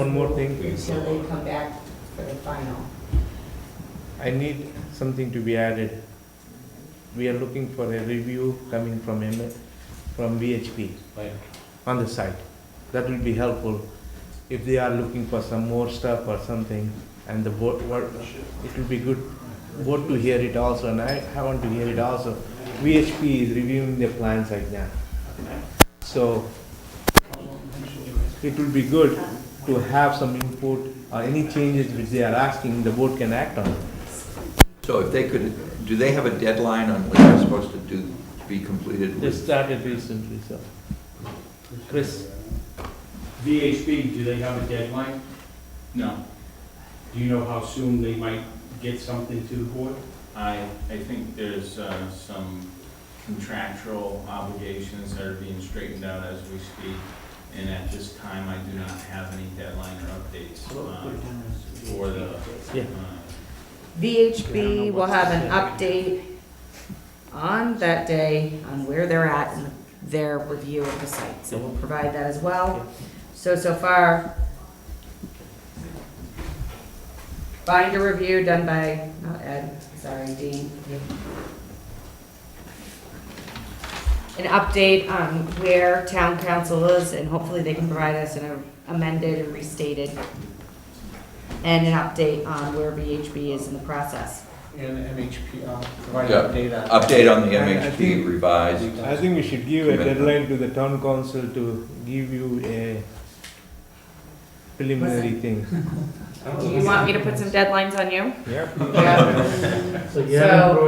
one more thing, please. until they come back for the final. I need something to be added. We are looking for a review coming from M, from VHP Right. on the site. That will be helpful if they are looking for some more stuff or something and the board, what- it will be good board to hear it also and I, I want to hear it also. VHP is reviewing their plans right now. So it will be good to have some input or any changes which they are asking, the board can act on it. So if they could, do they have a deadline on what they're supposed to do, to be completed They with? started recently, so. Chris, VHB, do they have a deadline? No, Do you know how soon they might get something to the board? I, I think there's uh, some contractual obligations that are being straightened out as we speak, and at this time, I do not have any deadline or updates uh, for the, Yeah. uh, VHB will have an update on that day on where they're at in their review of the site, so we'll provide that as well. So, so far, binder review done by, not Ed, sorry, Dean. An update on where town council is, and hopefully they can provide us an amended and restated and an update on where VHB is in the process. And MHP, uh, provide Yeah. data. Update on the I- I MHP think- revised, I think we should give a Commitment. deadline to the town council to give you a preliminary thing. Do you want me to put some deadlines on you? Yep. So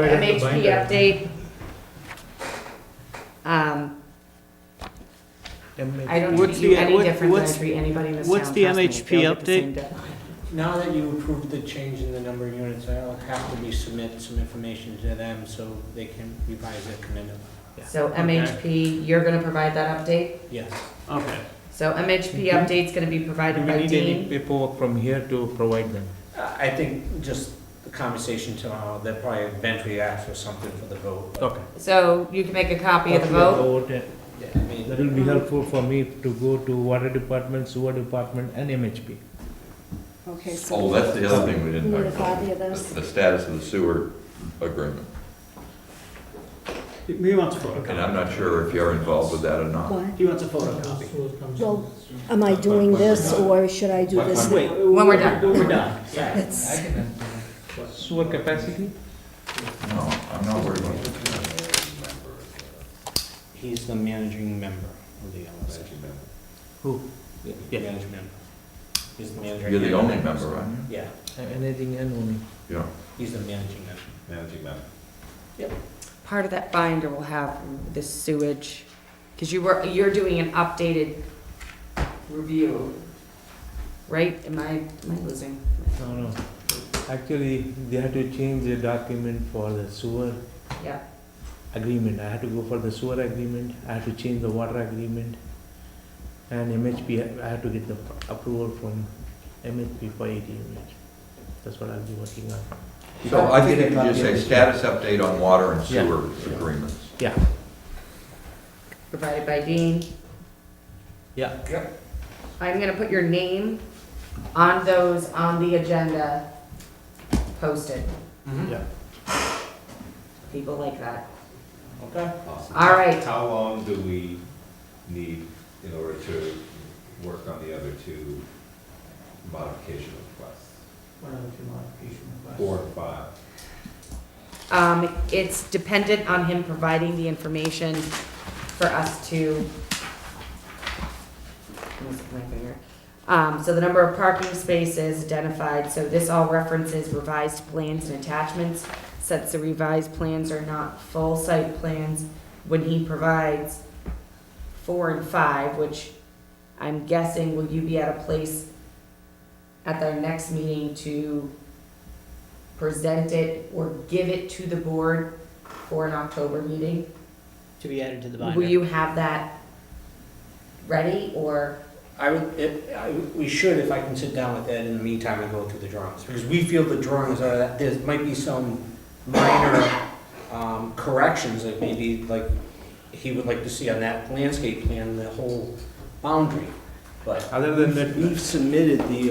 MHP update. Um, I don't What's treat you the- any what- different than I what's- treat anybody in this town. what's the Trust me, MHP they'll get the same deadline. Now that you approved the change in the number of units, I'll have to resubmit some information to them so they can revise their commitment. So MHP, you're gonna provide that update? Yes. Okay. So MHP Mm-hmm. Mhm. update's gonna be Do provided we by need any Dean? paperwork from here to provide them? Uh, I I think just the conversation tomorrow, they'll probably eventually ask for something for the vote. but- Okay. So you can make a copy of the Copy vote? vote, Yeah, I uh, mean, That will be helpful for me to go to water department, sewer department and MHP. Okay, so oh, that's the other thing we you need didn't a talk about, copy of the this? the status of the sewer agreement. He wants a photocopy. And I'm not sure if you're involved with that or not. What? He wants a photocopy. Well, am I doing this or should I do this Wait. now? When we're done. When we're done. That's- Sewer capacity? No, I'm not worried about it. He's the managing member of the LSA. Who? Yeah, managing member. He's the managing. You're the only member, aren't you? Yeah, Uh, Anything and only. Yeah. he's the managing member. Managing member. Part of that binder will have the sewage, because you were, you're doing an updated review, right? Am I, am I losing? No, no. Actually, they had to change the document for the sewer Yeah, agreement. I had to go for the sewer agreement, I had to change the water agreement. And MHP, I had to get the approval from MHP for 80 units. That's what I'll be working on. So I think you can just say status update on water and Yeah. sewer agreements. provided by Dean. Yeah. I'm gonna put your name on those on the agenda posted. Yeah. People like that. Okay. All right, How long do we need in order to work on the other two modification requests? What other two modification requests? Four and five? um, it's dependent on him providing the information for us to. Let me stick my finger. Um, so the number of parking spaces identified, so this all references revised plans and attachments. Since the revised plans are not full site plans, when he provides four and five, which I'm guessing will you be at a place at their next meeting to present it or give it to the board for an October meeting? To be added to the binder. Will you have that ready or? I would, it, I, we should, if I can sit down with Ed in the meantime and go through the drawings, because we feel the drawings are, that there might be some minor, um, corrections that maybe, like, he would like to see on that landscape plan, the whole boundary. but. Other than that, We've submitted the